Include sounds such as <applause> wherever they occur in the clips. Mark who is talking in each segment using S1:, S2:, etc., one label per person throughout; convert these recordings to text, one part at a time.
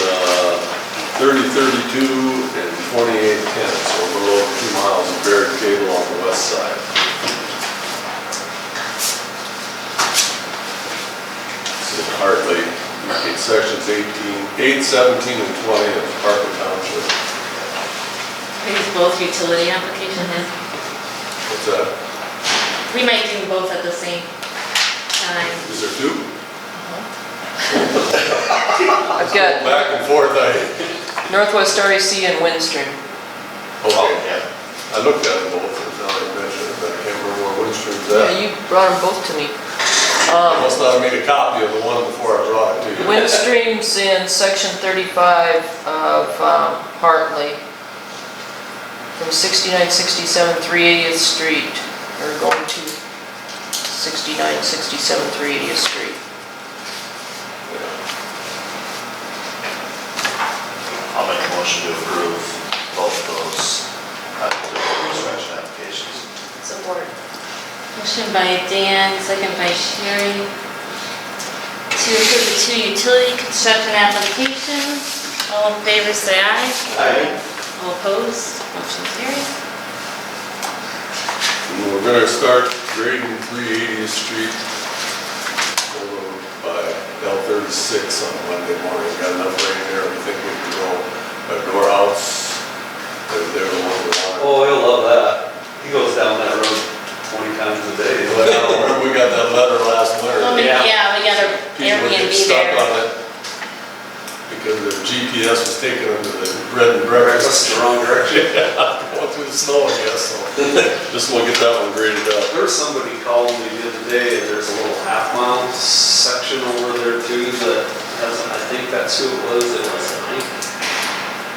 S1: uh, twenty-eight ten, so below two miles of Barrett Cable on the west side. This is Hartley, in sections 18, 8, 17, and twenty of Hartley Township.
S2: We do both utility application then?
S1: What's that?
S2: We might do both at the same time.
S1: Is there two?
S3: I've got
S1: Back and forth, I,
S3: Northwest REC and Windstream.
S1: oh, I looked at them both, and now I mentioned it, but I can't remember where Windstream's at.
S3: Yeah, you brought them both to me.
S1: I
S3: Um,
S1: must not have made a copy of the one before I brought it to you.
S3: Windstream's in section 35 of um, Hartley. From 6967 380th Street, or going to 6967 380th Street.
S4: I'll make a motion to approve both those uh, construction applications.
S2: Support. Motion by Dan, second by Sherry. To approve the two utility construction applications. All in favor, say aye.
S4: Aye.
S2: All opposed, motion carries.
S1: And We're gonna start grading three eightieth street over by L thirty-six on Monday morning. Got enough rain there, we think we can go by door outs. They're, they're the one we want.
S5: Oh, he'll love that. He goes down that road twenty times a day. He'll
S1: But I don't
S5: have-
S1: remember, we got that letter last
S2: Well, Oh, we-
S1: winter.
S2: yeah,
S5: Yeah.
S2: we got our
S1: People get
S2: Airbnb
S1: stuck on
S2: there.
S1: it because their GPS was taking them to the bread and breakfast.
S5: Breakfast in the wrong direction. <laughs>
S1: Going through the snow, I guess, so. Just wanna get that one graded up.
S5: There was somebody called me the other day, and there's a little half mile section over there too that has, I think that's who it was, it was Hank.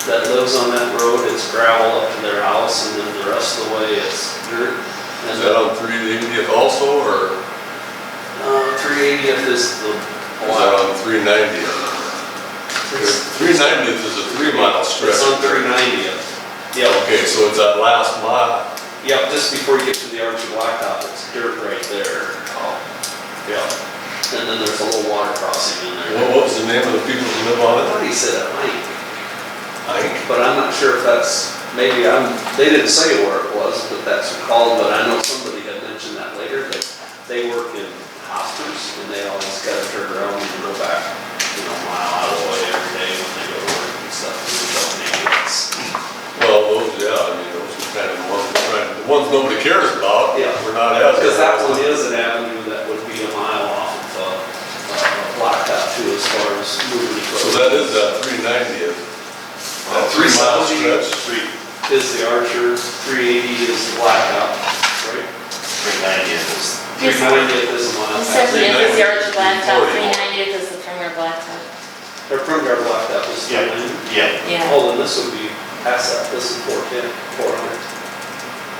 S5: That lives on that road, it's gravel up to their house, and then the rest of the way it's
S1: Is
S5: dirt. And uh,
S1: that
S5: then,
S1: on three eightieth also, or is
S5: uh, three eightieth is the.
S1: that on three ninetieth?
S5: It's
S1: Three ninetieth is a three mile stretch.
S5: it's on three ninetieth. Yeah,
S1: Okay, so it's that last mile.
S5: Yeah, just before you get to the Archie Blacktop, it's dirt right there. Oh, Yeah. And then there's a little water crossing in
S1: What
S5: there.
S1: what was the name of the people who live on
S5: I
S1: it?
S5: thought he said it might,
S1: Ike?
S5: but I'm not sure if that's, maybe I'm, they didn't say where it was, but that's called, but I know somebody had mentioned that later, that they work in hospitals and they always gotta turn around and go back, you know, a mile out of the way every day when they go to work and stuff. and they don't need it.
S1: Well, those, yeah, I mean, those are kind of the ones, we're trying- the ones nobody cares about.
S5: Yeah.
S1: We're not as.
S5: Because that one is an avenue that would be a mile off of, uh, uh, Blacktop too, as far as moving. the
S1: So
S5: road.
S1: that is that three ninetieth. That three mile stretch.
S4: Three,
S5: Is the Archer, three eighty is the Blacktop, right?
S4: three ninety is,
S5: Three ninety is the mile.
S2: It says
S1: Three
S2: it is the Arch
S1: ninety.
S2: Blacktop,
S1: Forty.
S2: 390 is the Premier Blacktop.
S5: Their front guard Blacktop was three
S4: Yeah.
S5: ninety.
S4: yeah,
S2: Yeah.
S5: Oh, then this would be past that, this is four ten, four hundred.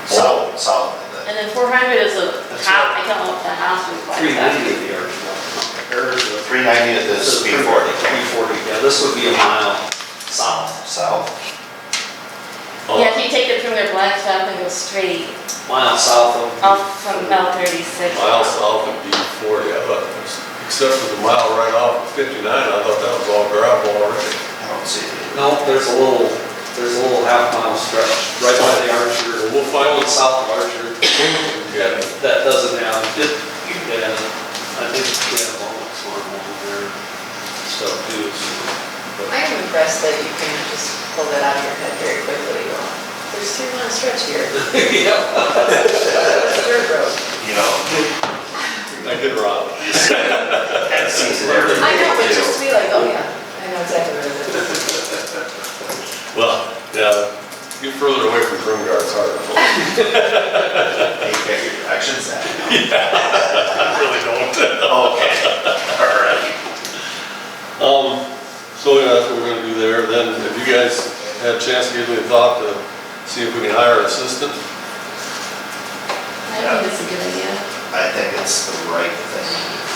S4: south, south of that.
S2: And then 400 is a
S5: That's
S2: house, I
S5: right.
S2: don't know if the house was
S5: Three ninety
S2: Blacktop.
S5: is the Archer Blacktop. Or the-
S4: Three ninety is the speed forty,
S5: B forty, yeah, this would be a mile south,
S4: south.
S1: Oh,
S2: Yeah, if you take it from their Blacktop and go straight
S5: mile south of.
S2: off from Bell 36.
S1: Mile south of B forty, I thought, it was- except for the mile right off of fifty-nine, I thought that was all gravel already.
S4: I don't see it.
S5: No, there's a little, there's a little half mile stretch right by the Archer,
S1: We'll find
S5: right
S1: this
S5: south of Archer.
S1: Yeah.
S5: That doesn't have, it, yeah, I think we have all the sort of over there, stuff too. so, but-
S6: I am impressed that you can just pull that out of your head very quickly. Go, There's three mile stretch here.
S5: <laughs> Yeah,
S6: It's dirt road.
S4: You know,
S1: I get around.
S4: that seems very.
S6: I know, but just to be like, oh yeah, I know exactly where it is.
S1: Well, yeah, get further away from Prune Guard, it's harder. I
S4: You get your directions
S1: <laughs>
S4: at.
S1: really don't.
S4: Okay, all right.
S1: Um, so yeah, that's what we're gonna do there. Then if you guys had a chance to give me a thought to see if we can hire an assistant,
S2: I think that's a good idea.
S4: I think it's the right thing to do. Oh. Um.